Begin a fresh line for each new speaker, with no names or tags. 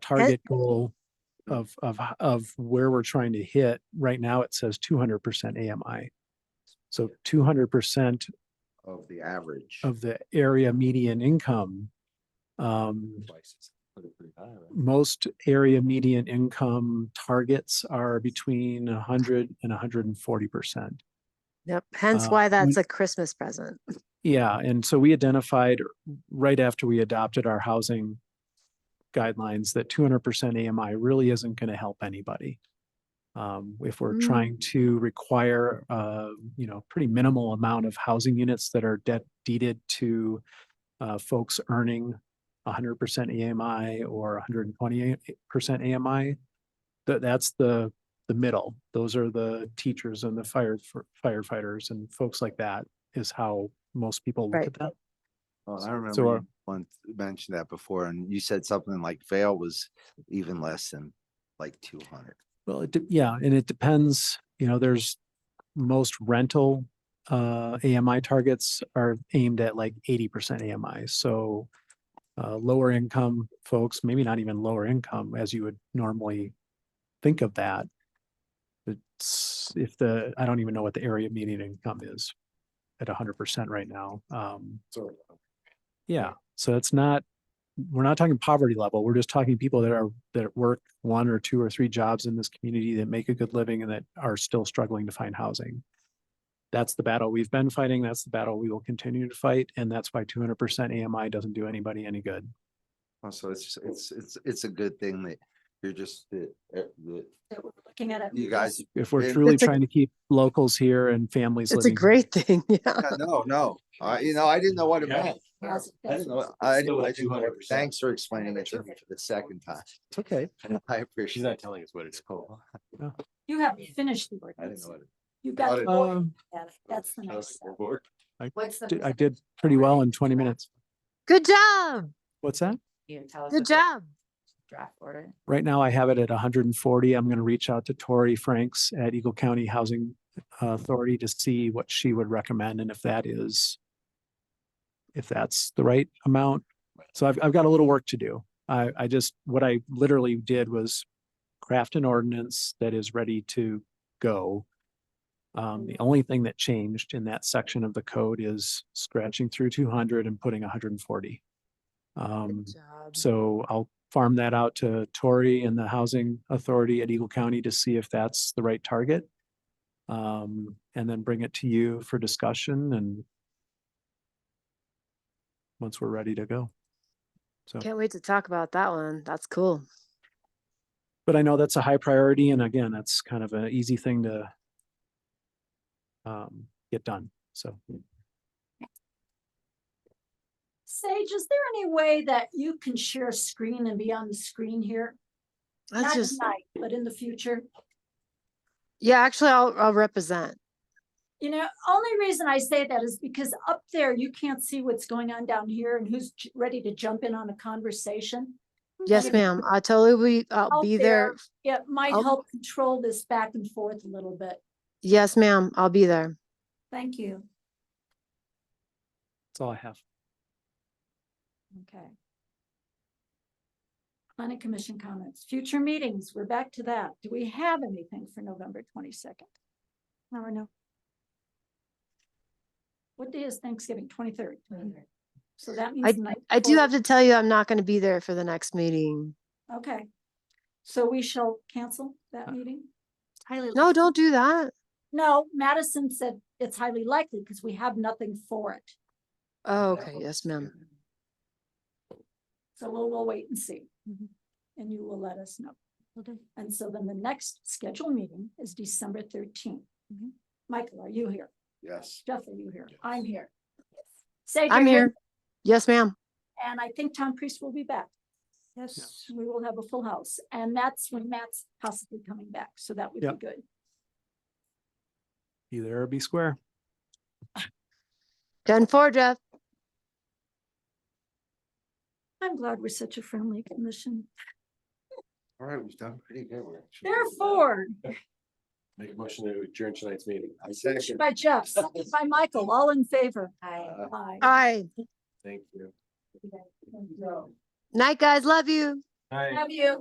target goal of, of, h- of where we're trying to hit. Right now, it says two hundred percent AMI. So two hundred percent
of the average.
of the area median income. Um,
Places. Put it pretty high, right?
most area median income targets are between hundred and hundred and forty percent.
Yep, hence
Uh,
why that's
we-
a Christmas present.
Yeah, and so we identified right after we adopted our housing guidelines that two hundred percent AMI really isn't going to help anybody. Um, if we're
Mm.
trying to require, uh, you know, pretty minimal amount of housing units that are debt deeded to uh, folks earning hundred percent AMI or hundred and twenty percent AMI, that, that's the, the middle. Those are the teachers and the fire firefighters and folks like that is how most people look
Right.
at that.
Well,
So-
Oh, I remember
so our-
you once mentioned that before and you said something like Vale was even less than like two hundred.
Well, it, de- yeah, and it depends, you know, there's most rental uh AMI targets are aimed at like eighty percent AMI, so uh lower income folks, maybe not even lower income as you would normally think of that. It's if the, I don't even know what the area median income is at hundred percent right now. Um,
So.
yeah, so it's not, we're not talking poverty level. We're just talking people that are, that work one or two or three jobs in this community that make a good living and that are still struggling to find housing. That's the battle we've been fighting. That's the battle we will continue to fight. And that's why two hundred percent AMI doesn't do anybody any good.
uh, So it's, it's, it's, it's a good thing that you're just, that, uh, that
that we're looking at it.
you guys,
If we're
And-
truly
It's a-
trying to keep locals here and families
It's a
living.
great thing, yeah.
Yeah, no, no, I, you know, I didn't know what it
Yeah.
meant. I
Yes,
didn't know,
yes.
I
Still
didn't, I
at
didn't know what-
200%.
Thanks for explaining it to me for the second time. It's okay. I
She's
appreciate
not
it.
telling us what it is.
It's cool.
You haven't finished the
I didn't
ordinance.
know what it.
You got.
I
the
didn't-
board
Um,
at it. That's the nice
House
stuff.
board.
What's the?
Did- I did pretty well in twenty minutes.
Good job,
What's that?
You tell us.
good
if it's
job.
Draft order.
Right now I have it at hundred and forty. I'm going to reach out to Tori Franks at Eagle County Housing uh, Authority to see what she would recommend and if that is if that's the right amount. So I've, I've got a little work to do. I, I just, what I literally did was craft an ordinance that is ready to go. Um, the only thing that changed in that section of the code is scratching through two hundred and putting hundred and forty. Um,
Good job.
so I'll farm that out to Tori and the Housing Authority at Eagle County to see if that's the right target. Um, and then bring it to you for discussion and once we're ready to go. So,
Can't wait to talk about that one. That's cool.
but I know that's a high priority and again, that's kind of an easy thing to um, get done. So
Sage, is there any way that you can share screen and be on the screen here?
That's
Not
just,
tonight, But in the future,
yeah, actually, I'll, I'll represent.
you know, only reason I say that is because up there, you can't see what's going on down here and who's j- ready to jump in on a conversation.
Yes,
If-
ma'am, I totally, will be- I'll
Out
be
there.
there.
It might
I'll-
help control this back and forth a little bit.
Yes, ma'am, I'll be there.
Thank you.
that's all I have.
Okay. Planning Commission comments, future meetings, we're back to that. Do we have anything for November twenty-second? No, or no? What day is Thanksgiving? Twenty-third. So that means. the night
I do
before-
have to tell you, I'm not gonna be there for the next meeting.
Okay. So we shall cancel that meeting? Uh, Highly.
No, don't do that.
No, Madison said it's highly likely because we have nothing for it.
Oh, okay, yes,
Um,
ma'am.
So we'll, we'll wait and see. And you will let us know. And so then the next scheduled meeting is December thirteenth. Michael, are you here?
Yes.
Jeff, are you here?
Yes.
I'm here. Sage,
I'm
are you-
here. Yes, ma'am.
And I think Tom Priest will be back.
Yes.
We will have a full house and that's when Matt's possibly coming back. So that would
Yeah.
be good.
Be there or be square.
Done for, Jeff.
I'm glad we're such a friendly commission.
All right, we've done pretty good. We're actually-
Therefore,
Make a motion to adjourn tonight's meeting.
I second.
by Jeff, second by Michael, all in favor.
Hi.
Uh,
Aye.
Aye.
Thank you.
No.
Night, guys. Love you.
Hi.
Have you?